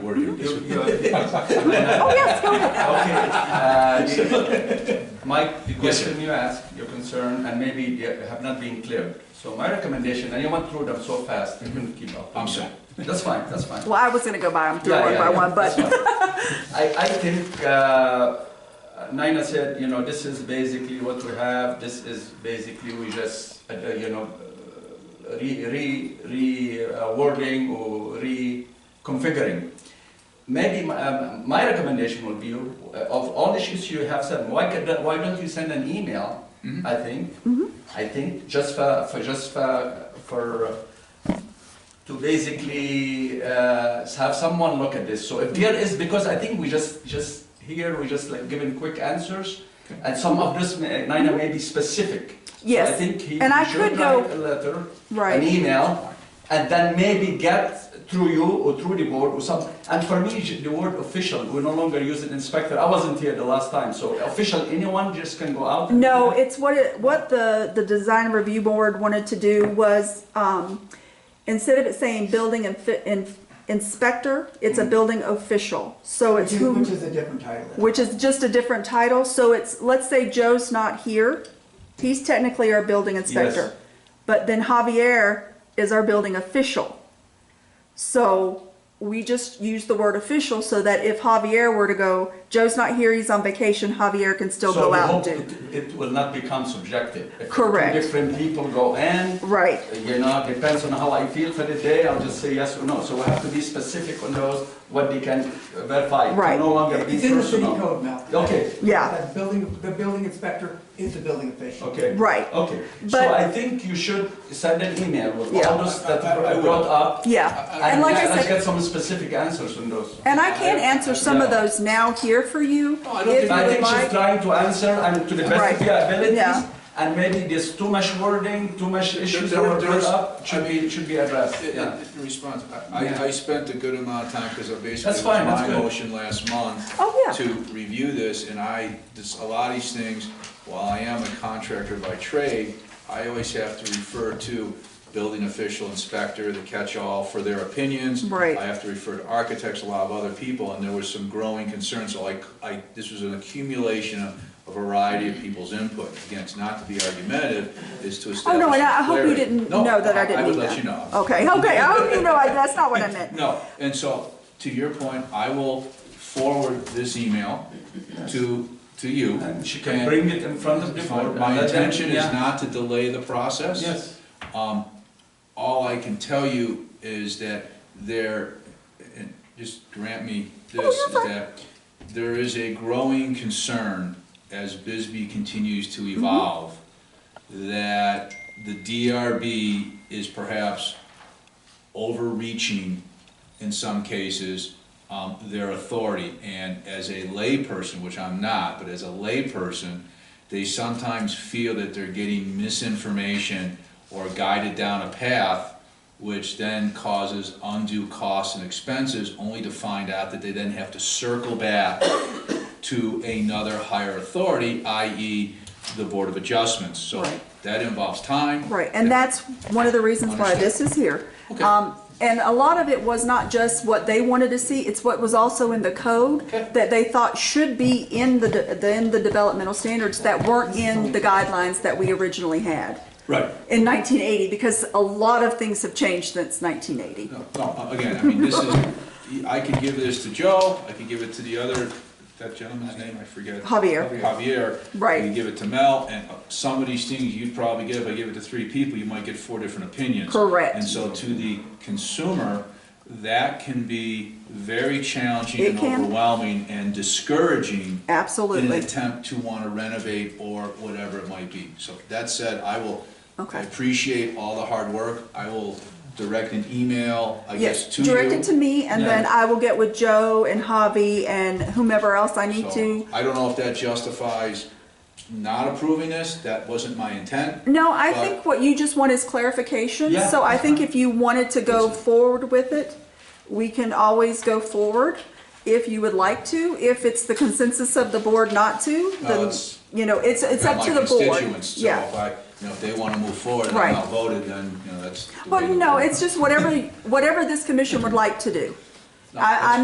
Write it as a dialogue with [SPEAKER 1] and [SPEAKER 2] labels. [SPEAKER 1] You- you-
[SPEAKER 2] Oh, yes, go ahead.
[SPEAKER 1] Okay. uh, Mike, the question you asked, your concern, and maybe they have not been clear. So my recommendation, and you went through them so fast, you couldn't keep up.
[SPEAKER 3] I'm sorry.
[SPEAKER 1] That's fine, that's fine.
[SPEAKER 2] Well, I was gonna go by them through
[SPEAKER 1] Yeah,
[SPEAKER 2] one
[SPEAKER 1] yeah,
[SPEAKER 2] by
[SPEAKER 1] yeah,
[SPEAKER 2] one,
[SPEAKER 1] that's
[SPEAKER 2] but
[SPEAKER 1] fine. I, I think, uh, Nina said, you know, this is basically what we have, this is basically we just, uh, you know, uh, re, re, re uh, wording or reconfiguring. Maybe my, um, my recommendation would be, uh, of all issues you have said, why could, that- why don't you send an email?
[SPEAKER 3] Mhm.
[SPEAKER 1] I think,
[SPEAKER 2] Mm-hmm.
[SPEAKER 1] I think, just for, for, just for, for, uh, to basically uh, have someone look at this. So if there is, because I think we just, just here, we just like giving quick answers, and some of this, may- Nina, may be specific. So I
[SPEAKER 2] Yes,
[SPEAKER 1] think he
[SPEAKER 2] and I
[SPEAKER 1] he
[SPEAKER 2] could
[SPEAKER 1] should
[SPEAKER 2] go-
[SPEAKER 1] write a letter, an
[SPEAKER 2] right.
[SPEAKER 1] email, and then maybe get through you or through the board or some, and for me, j- the word official, we no longer use it inspector, I wasn't here the last time, so official, anyone just can go out? and-
[SPEAKER 2] No, it's what it, what the, the design review board wanted to do was, um, instead of it saying building and fit, in, inspector, it's a building official. So it's who.
[SPEAKER 4] Which is a different title.
[SPEAKER 2] which is just a different title, so it's, let's say Joe's not here, he's technically our building inspector. But then Javier is our building official. So we just use the word official so that if Javier were to go, Joe's not here, he's on vacation, Javier can still
[SPEAKER 1] So
[SPEAKER 2] go
[SPEAKER 1] we
[SPEAKER 2] out
[SPEAKER 1] hope
[SPEAKER 2] and do.
[SPEAKER 1] it- It will not become subjective. If two
[SPEAKER 2] Correct.
[SPEAKER 1] Different people go in,
[SPEAKER 2] Right,
[SPEAKER 1] you know, depends on how I feel for the day, I'll just say yes or no. So we have to be specific on those, what they can verify. It can
[SPEAKER 2] Right.
[SPEAKER 1] No longer be
[SPEAKER 4] It's in the city
[SPEAKER 1] personal.
[SPEAKER 4] code now.
[SPEAKER 1] Okay,
[SPEAKER 2] yeah,
[SPEAKER 4] That building, the building inspector is the building official.
[SPEAKER 1] okay,
[SPEAKER 2] right,
[SPEAKER 1] okay. So
[SPEAKER 2] But-
[SPEAKER 1] I think you should send an email with
[SPEAKER 2] Yeah.
[SPEAKER 1] all those that
[SPEAKER 3] I- I- I
[SPEAKER 1] were brought up.
[SPEAKER 2] yeah. And
[SPEAKER 1] And
[SPEAKER 2] like I
[SPEAKER 1] let's let's
[SPEAKER 2] said-
[SPEAKER 1] get some specific answers on those.
[SPEAKER 2] And I can answer some of those now here for you,
[SPEAKER 3] No, I don't
[SPEAKER 2] if
[SPEAKER 3] think-
[SPEAKER 2] you
[SPEAKER 1] I
[SPEAKER 2] would
[SPEAKER 1] think she's
[SPEAKER 2] like.
[SPEAKER 1] trying to answer and to the best of
[SPEAKER 2] Right.
[SPEAKER 1] your abilities.
[SPEAKER 2] Yeah.
[SPEAKER 1] And maybe there's too much wording, too much issues that
[SPEAKER 3] there-
[SPEAKER 1] were
[SPEAKER 3] there
[SPEAKER 1] brought
[SPEAKER 3] is-
[SPEAKER 1] up, should be, should be addressed.
[SPEAKER 3] In-
[SPEAKER 1] Yeah.
[SPEAKER 3] In in response, I,
[SPEAKER 1] Yeah.
[SPEAKER 3] I- I spent a good amount of time, because I basically,
[SPEAKER 1] That's
[SPEAKER 3] it was
[SPEAKER 1] fine, that's
[SPEAKER 3] my
[SPEAKER 1] good.
[SPEAKER 3] motion last month.
[SPEAKER 2] Oh, yeah.
[SPEAKER 3] To review this, and I, this, a lot of these things, while I am a contractor by trade, I always have to refer to building official, inspector, the catch-all for their opinions.
[SPEAKER 2] Right.
[SPEAKER 3] I have to refer to architects, a lot of other people, and there was some growing concern, so I, I, this was an accumulation of a variety of people's input. Again, it's not to be argumentative, it's to establish clarity.
[SPEAKER 2] Oh, no, and I hope you didn't
[SPEAKER 3] No,
[SPEAKER 2] know that I didn't mean that.
[SPEAKER 3] I would let you know.
[SPEAKER 2] Okay, okay, I hope you know, I- that's not what I meant.
[SPEAKER 3] No, and so, to your point, I will forward this email to, to you.
[SPEAKER 1] And she can bring it in front of the board.
[SPEAKER 3] My
[SPEAKER 1] and let them-
[SPEAKER 3] intention is
[SPEAKER 1] yeah.
[SPEAKER 3] not to delay the process.
[SPEAKER 1] Yes.
[SPEAKER 3] Um, all I can tell you is that there, and just grant me this, is that there is a growing concern as Bisbee continues to evolve, that the DRB is perhaps overreaching in some cases, um, their authority. And as a layperson, which I'm not, but as a layperson, they sometimes feel that they're getting misinformation or guided down a path, which then causes undue costs and expenses, only to find out that they then have to circle back to another higher authority, i.e. the Board of Adjustments. So
[SPEAKER 2] Right.
[SPEAKER 3] that involves time.
[SPEAKER 2] Right, and
[SPEAKER 3] that
[SPEAKER 2] that's one of the reasons why this is here.
[SPEAKER 3] Okay.
[SPEAKER 2] Um, And a lot of it was not just what they wanted to see, it's what was also in the code
[SPEAKER 3] Okay.
[SPEAKER 2] that they thought should be in the, de- the- in the developmental standards that weren't in the guidelines that we originally had
[SPEAKER 3] Right.
[SPEAKER 2] in 1980, because a lot of things have changed since 1980.
[SPEAKER 3] No, no, again, I mean, this is, I could give this to Joe, I could give it to the other, that gentleman's name, I forget.
[SPEAKER 2] Javier.
[SPEAKER 3] Javier.
[SPEAKER 2] Right.
[SPEAKER 3] I could give it to Mel, and uh, some of these things you'd probably get, if I give it to three people, you might get four different opinions.
[SPEAKER 2] Correct.
[SPEAKER 3] And so to the consumer, that can be very challenging
[SPEAKER 2] It
[SPEAKER 3] and
[SPEAKER 2] can.
[SPEAKER 3] overwhelming and discouraging in an
[SPEAKER 2] Absolutely.
[SPEAKER 3] attempt to want to renovate or whatever it might be. So that said, I will,
[SPEAKER 2] Okay.
[SPEAKER 3] I appreciate all the hard work. I will direct an email, I guess,
[SPEAKER 2] Yes,
[SPEAKER 3] to you.
[SPEAKER 2] direct it to me, and then
[SPEAKER 1] Yeah.
[SPEAKER 2] I will get with Joe and Javi and whomever else I need
[SPEAKER 3] So,
[SPEAKER 2] to.
[SPEAKER 3] I don't know if that justifies not approving this. That wasn't my intent.
[SPEAKER 2] No, I
[SPEAKER 3] But- uh-huh.
[SPEAKER 2] think what you just want is clarification,
[SPEAKER 1] Yeah,
[SPEAKER 2] so I
[SPEAKER 1] that's
[SPEAKER 2] think
[SPEAKER 1] fine.
[SPEAKER 2] if you wanted to go forward with it, we can always go forward if you would like to, if it's the consensus of the board not to,
[SPEAKER 3] No,
[SPEAKER 2] then,
[SPEAKER 3] it's-
[SPEAKER 2] you know, it's, it's
[SPEAKER 3] They're
[SPEAKER 2] up
[SPEAKER 3] my
[SPEAKER 2] to the board.
[SPEAKER 3] constituents, So if
[SPEAKER 2] Yeah,
[SPEAKER 3] I, you know, if they want to move forward and
[SPEAKER 2] Right.
[SPEAKER 3] I'm outvoted, then, you know, that's. the way
[SPEAKER 2] well,
[SPEAKER 3] to
[SPEAKER 2] no,
[SPEAKER 3] go.
[SPEAKER 2] it's just whatever, whatever this commission would like to do.
[SPEAKER 3] No, that's-
[SPEAKER 2] I, I'm